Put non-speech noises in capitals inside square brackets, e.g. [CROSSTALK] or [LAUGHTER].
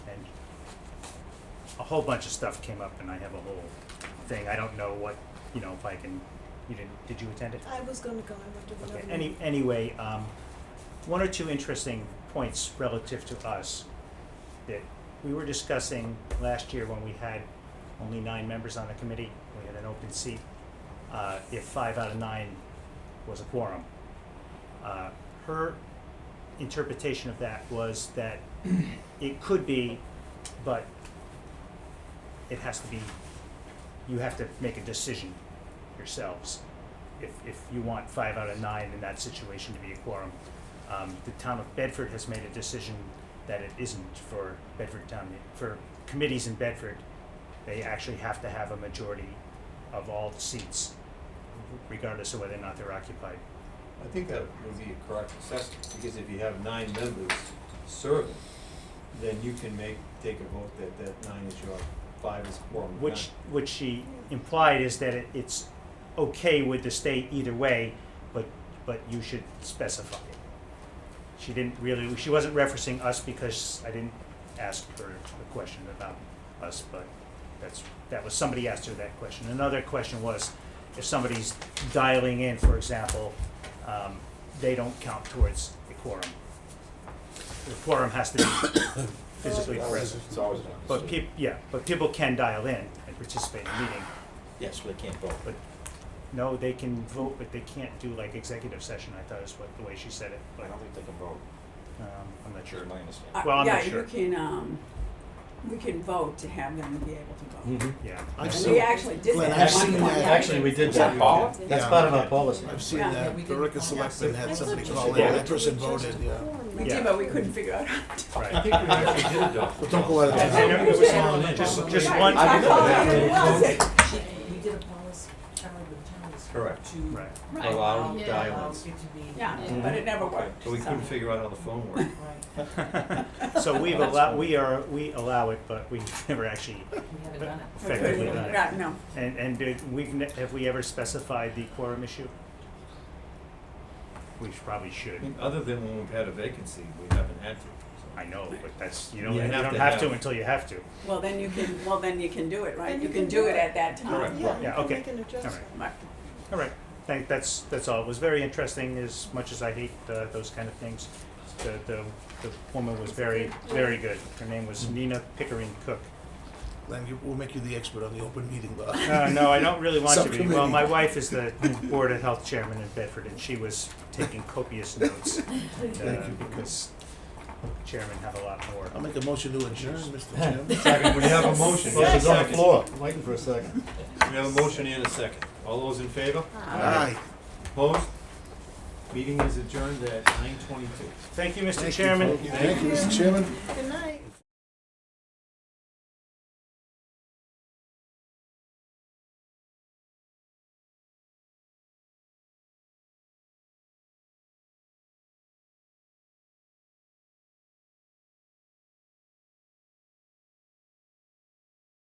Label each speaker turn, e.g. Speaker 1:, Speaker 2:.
Speaker 1: a whole bunch of stuff came up and I have a whole thing. I don't know what, you know, if I can, you didn't, did you attend it?
Speaker 2: I was gonna go, I went to the
Speaker 1: Okay,
Speaker 2: other
Speaker 1: any,
Speaker 2: meeting.
Speaker 1: anyway, um, one or two interesting points relative to us that we were discussing last year when we had only nine members on the committee, we had an open seat, uh, if five out of nine was a quorum. Uh, her interpretation of that was that [CLEARS THROAT] it could be, but it has to be, you have to make a decision yourselves if, if you want five out of nine in that situation to be a quorum. Um, the town of Bedford has made a decision that it isn't for Bedford town, for committees in Bedford. They actually have to have a majority of all the seats, regardless of whether or not they're occupied.
Speaker 3: I think that would be a correct assessment, because if you have nine members serving, then you can make, take a vote that that nine is your, five is quorum. not-
Speaker 1: Which, which she implied is that it, it's okay with the state either way, but, but you should specify it. She didn't really, she wasn't referencing us because I didn't ask her a question about us, but that's, that was, somebody asked her that question. Another question was, if somebody's dialing in, for example, um, they don't count towards the quorum. The quorum has to be [COUGHS] physically present.
Speaker 4: It's always an
Speaker 1: But
Speaker 4: opportunity.
Speaker 1: peop, yeah, but people can dial in and participate in the meeting,
Speaker 4: Yes, we can't vote.
Speaker 1: but no, they can vote, but they can't do like executive session, I thought is what, the way she said it,
Speaker 4: I
Speaker 1: but,
Speaker 4: don't think they can vote,
Speaker 1: um, I'm not sure.
Speaker 4: is my
Speaker 5: Uh,
Speaker 4: understanding.
Speaker 1: Well, I'm not sure.
Speaker 5: Yeah, you can, um, we can vote to have them be able to vote.
Speaker 3: Mm-hmm.
Speaker 1: Yeah,
Speaker 6: Hmm. I've
Speaker 5: And
Speaker 6: seen,
Speaker 5: we actually did
Speaker 6: Glenn,
Speaker 5: that
Speaker 6: I've
Speaker 5: at one
Speaker 6: seen
Speaker 5: point.
Speaker 6: that.
Speaker 3: Actually, we did
Speaker 4: Is
Speaker 3: that.
Speaker 4: that Paul?
Speaker 3: That's
Speaker 6: Yeah.
Speaker 3: part of our policy.
Speaker 6: I've seen
Speaker 5: Yeah,
Speaker 6: that.
Speaker 7: we didn't
Speaker 6: Berica
Speaker 7: find out.
Speaker 6: Selectman had
Speaker 2: That's
Speaker 6: somebody
Speaker 2: what you
Speaker 6: call
Speaker 2: should
Speaker 6: in,
Speaker 2: do.
Speaker 6: that person
Speaker 2: It's just
Speaker 6: voted,
Speaker 2: a
Speaker 6: yeah.
Speaker 2: quorum,
Speaker 5: We
Speaker 2: that's
Speaker 5: did,
Speaker 1: Yeah.
Speaker 5: but we couldn't figure out. how to-
Speaker 1: right.
Speaker 3: I think we actually did adopt.
Speaker 6: But don't go out of
Speaker 1: I know there
Speaker 3: policy.
Speaker 1: was
Speaker 5: Yeah.
Speaker 1: one- just,
Speaker 7: Yeah.
Speaker 1: just
Speaker 5: Right,
Speaker 1: one,
Speaker 5: I
Speaker 3: I
Speaker 5: called
Speaker 3: remember
Speaker 5: it,
Speaker 3: that.
Speaker 5: it wasn't.
Speaker 7: We did a policy, Charlie with towns.
Speaker 3: Correct.
Speaker 7: To.
Speaker 1: right,
Speaker 5: Right.
Speaker 3: Allow
Speaker 7: Yeah,
Speaker 3: dialogues.
Speaker 7: allows it to be-
Speaker 5: Yeah,
Speaker 3: Mhm.
Speaker 5: but it never worked.
Speaker 3: So we couldn't
Speaker 5: so.
Speaker 3: figure out how the phone worked.
Speaker 7: Right.
Speaker 1: [LAUGHS] so we've allowed, we are, we allow it, but we [LAUGHS] never actually
Speaker 7: We haven't done it.
Speaker 5: We couldn't-
Speaker 1: effectively done it.
Speaker 5: Right, no,
Speaker 1: And, and did, we've, ne- have we ever specified the quorum issue? We should- probably
Speaker 3: I
Speaker 1: should,
Speaker 3: mean, Other than when we've had a vacancy, we haven't had to. so.
Speaker 1: I know, but that's, you know,
Speaker 3: You
Speaker 1: you don't
Speaker 3: have to
Speaker 1: have to
Speaker 3: have-
Speaker 1: until you have to.
Speaker 5: well, then you can, well, then you can do it, right?
Speaker 2: Then
Speaker 5: You can do it at that
Speaker 3: Correct.
Speaker 5: time.
Speaker 2: Yeah,
Speaker 1: Yeah,
Speaker 2: you can
Speaker 1: okay.
Speaker 2: make an adjustment.
Speaker 5: Right.
Speaker 1: All right, thank, that's, that's all. It was very interesting, as much as I hate uh, those kind of things. The, the, the woman was very, very good. Her name was
Speaker 6: Mm-hmm.
Speaker 1: Nina Pickering Cook.
Speaker 6: Glenn, you- we'll make you the expert on the open meeting [LAUGHS] law.
Speaker 1: Uh, no, I don't really want to be. Well, my
Speaker 6: Subcommittee.
Speaker 1: wife is the Board of Health Chairman in Bedford, and she was taking
Speaker 6: [LAUGHS]
Speaker 1: copious notes. uh,
Speaker 6: Thank you.
Speaker 1: Because chairman have a lot more.
Speaker 6: I'll make a motion to adjourn, [LAUGHS] Mr. Chairman.
Speaker 3: Second, we have a motion.
Speaker 8: Motion's on the
Speaker 3: Second.
Speaker 8: floor, waiting for a second.
Speaker 3: We have a motion and a second. All those in favor?
Speaker 6: Aye.
Speaker 3: Opposed? Meeting is adjourned at nine twenty-two.
Speaker 1: Thank you, Mr.
Speaker 6: Thank you,
Speaker 1: Chairman.
Speaker 6: folks. Thank you, Mr. Chairman.
Speaker 2: Good night.